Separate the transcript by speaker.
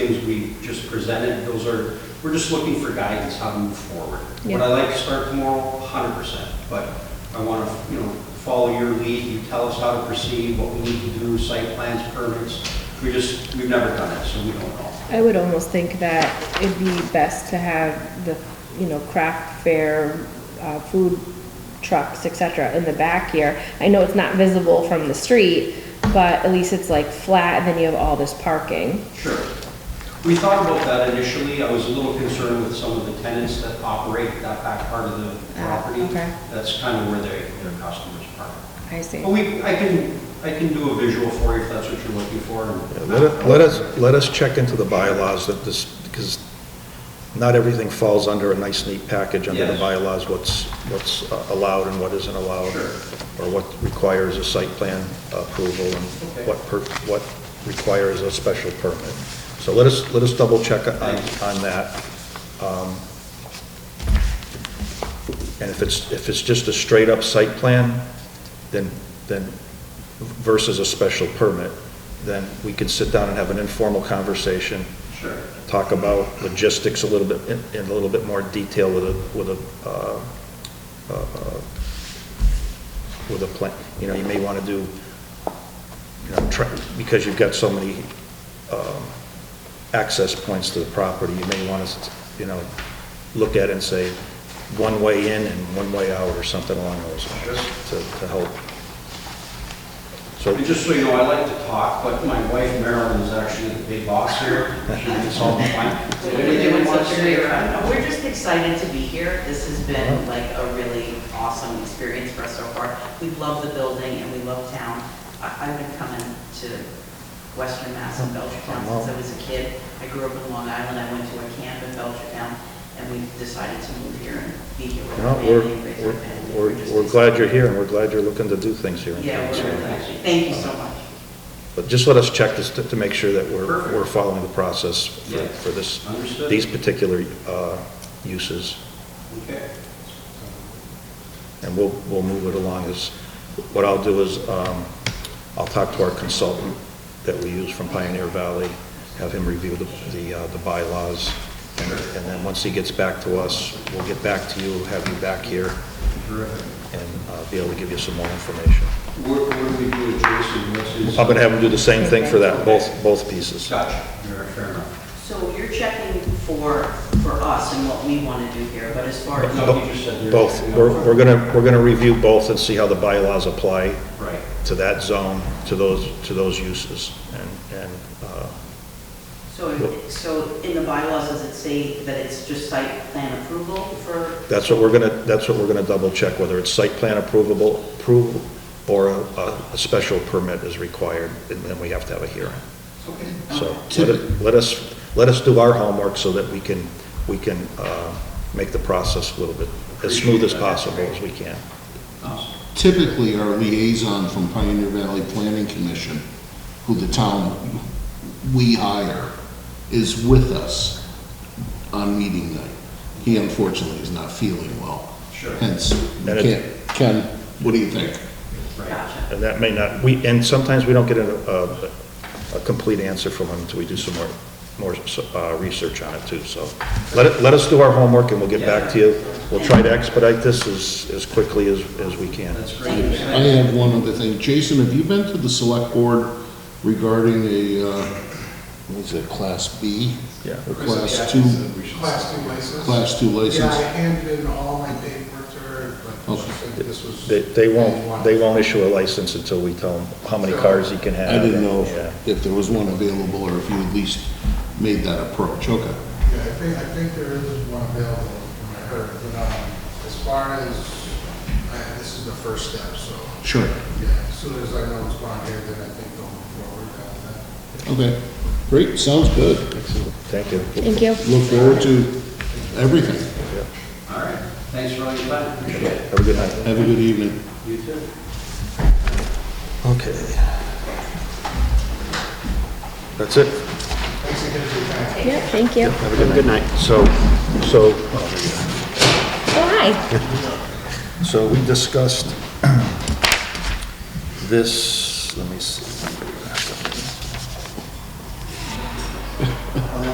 Speaker 1: things we just presented, those are, we're just looking for guidance how to move forward. Would
Speaker 2: Yeah.
Speaker 1: I like to start tomorrow? Hundred percent, but I want to, you know, follow your lead, you tell us how to proceed, what we need to do, site plans, permits. We just, we've never done it, so we don't know.
Speaker 2: I would almost think that it'd be best to have the, you know, craft fair, uh, food trucks, et cetera, in the back here. I know it's not visible from the street, but at least it's like flat, and then you have all this parking.
Speaker 1: Sure. We thought about that initially. I was a little concerned with some of the tenants that operate that back part of the
Speaker 2: Ah,
Speaker 1: property.
Speaker 2: okay.
Speaker 1: That's kind of where their, their customers park.
Speaker 2: I see.
Speaker 1: But we, I can, I can do a visual for you if that's what you're looking for.
Speaker 3: Yeah, Let it- let us, let us check into the bylaws that this, because not everything falls under a nice neat package under the
Speaker 1: Yes.
Speaker 3: bylaws, what's, what's uh, allowed and what isn't allowed.
Speaker 1: Sure.
Speaker 3: Or what requires a site plan approval and
Speaker 1: Okay.
Speaker 3: what, per- what requires a special permit. So let us, let us double check on,
Speaker 1: Thanks.
Speaker 3: on that. Um, And if it's, if it's just a straight up site plan, then, then versus a special permit, then we could sit down and have an informal conversation,
Speaker 1: Sure.
Speaker 3: talk about logistics a little bit, in- in a little bit more detail with a, with a, uh, uh, with a plan, you know, you may want to do, you know, try, because you've got so many um, access points to the property, you may want to, you know, look at it and say, one way in and one way out, or something along those lines, to, to help. So
Speaker 1: And just so you know, I like to talk, but my wife Marilyn is actually the big boss here. She can solve the
Speaker 4: So
Speaker 1: fine.
Speaker 4: we're doing
Speaker 1: Anything you want to
Speaker 4: such a great
Speaker 1: say?
Speaker 4: round. We're just excited to be here. This has been like a really awesome experience for us so far. We love the building and we love town. I- I've been coming to Western Mass and Belchertown
Speaker 3: Mm-hmm.
Speaker 4: since I was a kid. I grew up in Long Island. I went to a camp in Belchertown and we decided to move here and be here with
Speaker 3: You
Speaker 4: our
Speaker 3: know, we're,
Speaker 4: family and raise our
Speaker 3: we're-
Speaker 4: family. We're just
Speaker 3: we're, we're glad you're here, and we're glad you're looking to do things here. in
Speaker 4: Yeah, we're
Speaker 3: Kingston.
Speaker 4: really happy. Thank you so much.
Speaker 3: But just let us check this to, to make sure that we're,
Speaker 1: Perfect.
Speaker 3: we're following the process for,
Speaker 1: Yeah.
Speaker 3: for this,
Speaker 1: Understood.
Speaker 3: these particular, uh, uses.
Speaker 1: Okay.
Speaker 3: And we'll, we'll move it along as, what I'll do is, um, I'll talk to our consultant that we use from Pioneer Valley, have him review the, the, uh, the bylaws. And and then once he gets back to us, we'll get back to you, have you back here,
Speaker 1: Terrific.
Speaker 3: and, uh, be able to give you some more information.
Speaker 1: What, what do we do with Jason? What's his?
Speaker 3: I'm going to have them do the same thing for that, both, both pieces.
Speaker 1: Gotcha. Fair fair enough.
Speaker 4: So you're checking for, for us and what we want to do here, but as far as.
Speaker 1: No, you just said you're-
Speaker 3: Both. We're, we're going to, we're going to review both and see how the bylaws apply
Speaker 1: Right.
Speaker 3: to that zone, to those, to those uses. And, and, uh,
Speaker 4: So, so in the bylaws, does it say that it's just site plan approval for?
Speaker 3: that's what we're going to, that's what we're going to double check, whether it's site plan approvable, approval, or a, a special permit is required, and then we have to have a hearing.
Speaker 1: Okay.
Speaker 3: So let it- let us, let us do our homework so that we can, we can, uh, make the process a little bit as smooth as possible as we can.
Speaker 1: Awesome.
Speaker 5: typically our liaison from Pioneer Valley Planning Commission, who the town we hire, is with us on meeting night. He unfortunately is not feeling well.
Speaker 1: Sure.
Speaker 5: Hence,
Speaker 3: And it-
Speaker 5: Ken, Ken, what do you think?
Speaker 1: Right.
Speaker 4: Gotcha.
Speaker 3: And that may not, we, and sometimes we don't get a, a, a complete answer from them until we do some more, more, uh, research on it too, so. Let it, let us do our homework and we'll get back to you. We'll try to expedite this as, as quickly as, as we can.
Speaker 1: That's great.
Speaker 5: I have one other thing. Jason, have you been to the select board regarding a, uh, what is it, class B?
Speaker 3: Yeah.
Speaker 5: Or class two,
Speaker 6: Class two license?
Speaker 5: class two
Speaker 6: Yeah, I
Speaker 5: license?
Speaker 6: handed in all my paperwork to her, but she
Speaker 5: Okay.
Speaker 6: said this was.
Speaker 3: They, they won't, they won't issue a license until we tell them how many cars he can have.
Speaker 5: I didn't know
Speaker 3: Yeah.
Speaker 5: if- if there was one available or if you at least made that approach. Okay.
Speaker 6: Yeah, I think, I think there is one available from I heard, but, um, as far as, uh, this is the first step, so,
Speaker 5: Sure.
Speaker 6: yeah, as soon as I know it's on here, then I think going forward uh, on that.
Speaker 5: Okay. Great. Sounds good.
Speaker 3: Thank you.
Speaker 2: Thank you.
Speaker 5: Look forward to everything.
Speaker 1: All right. Thanks for all your time. Appreciate it.
Speaker 3: Have a good night.
Speaker 5: Have a good evening.
Speaker 1: You too.
Speaker 3: Okay. That's it.
Speaker 2: Yeah, thank you.
Speaker 3: Have a good night. So, so
Speaker 2: Oh, hi.
Speaker 3: So we discussed this, let me see.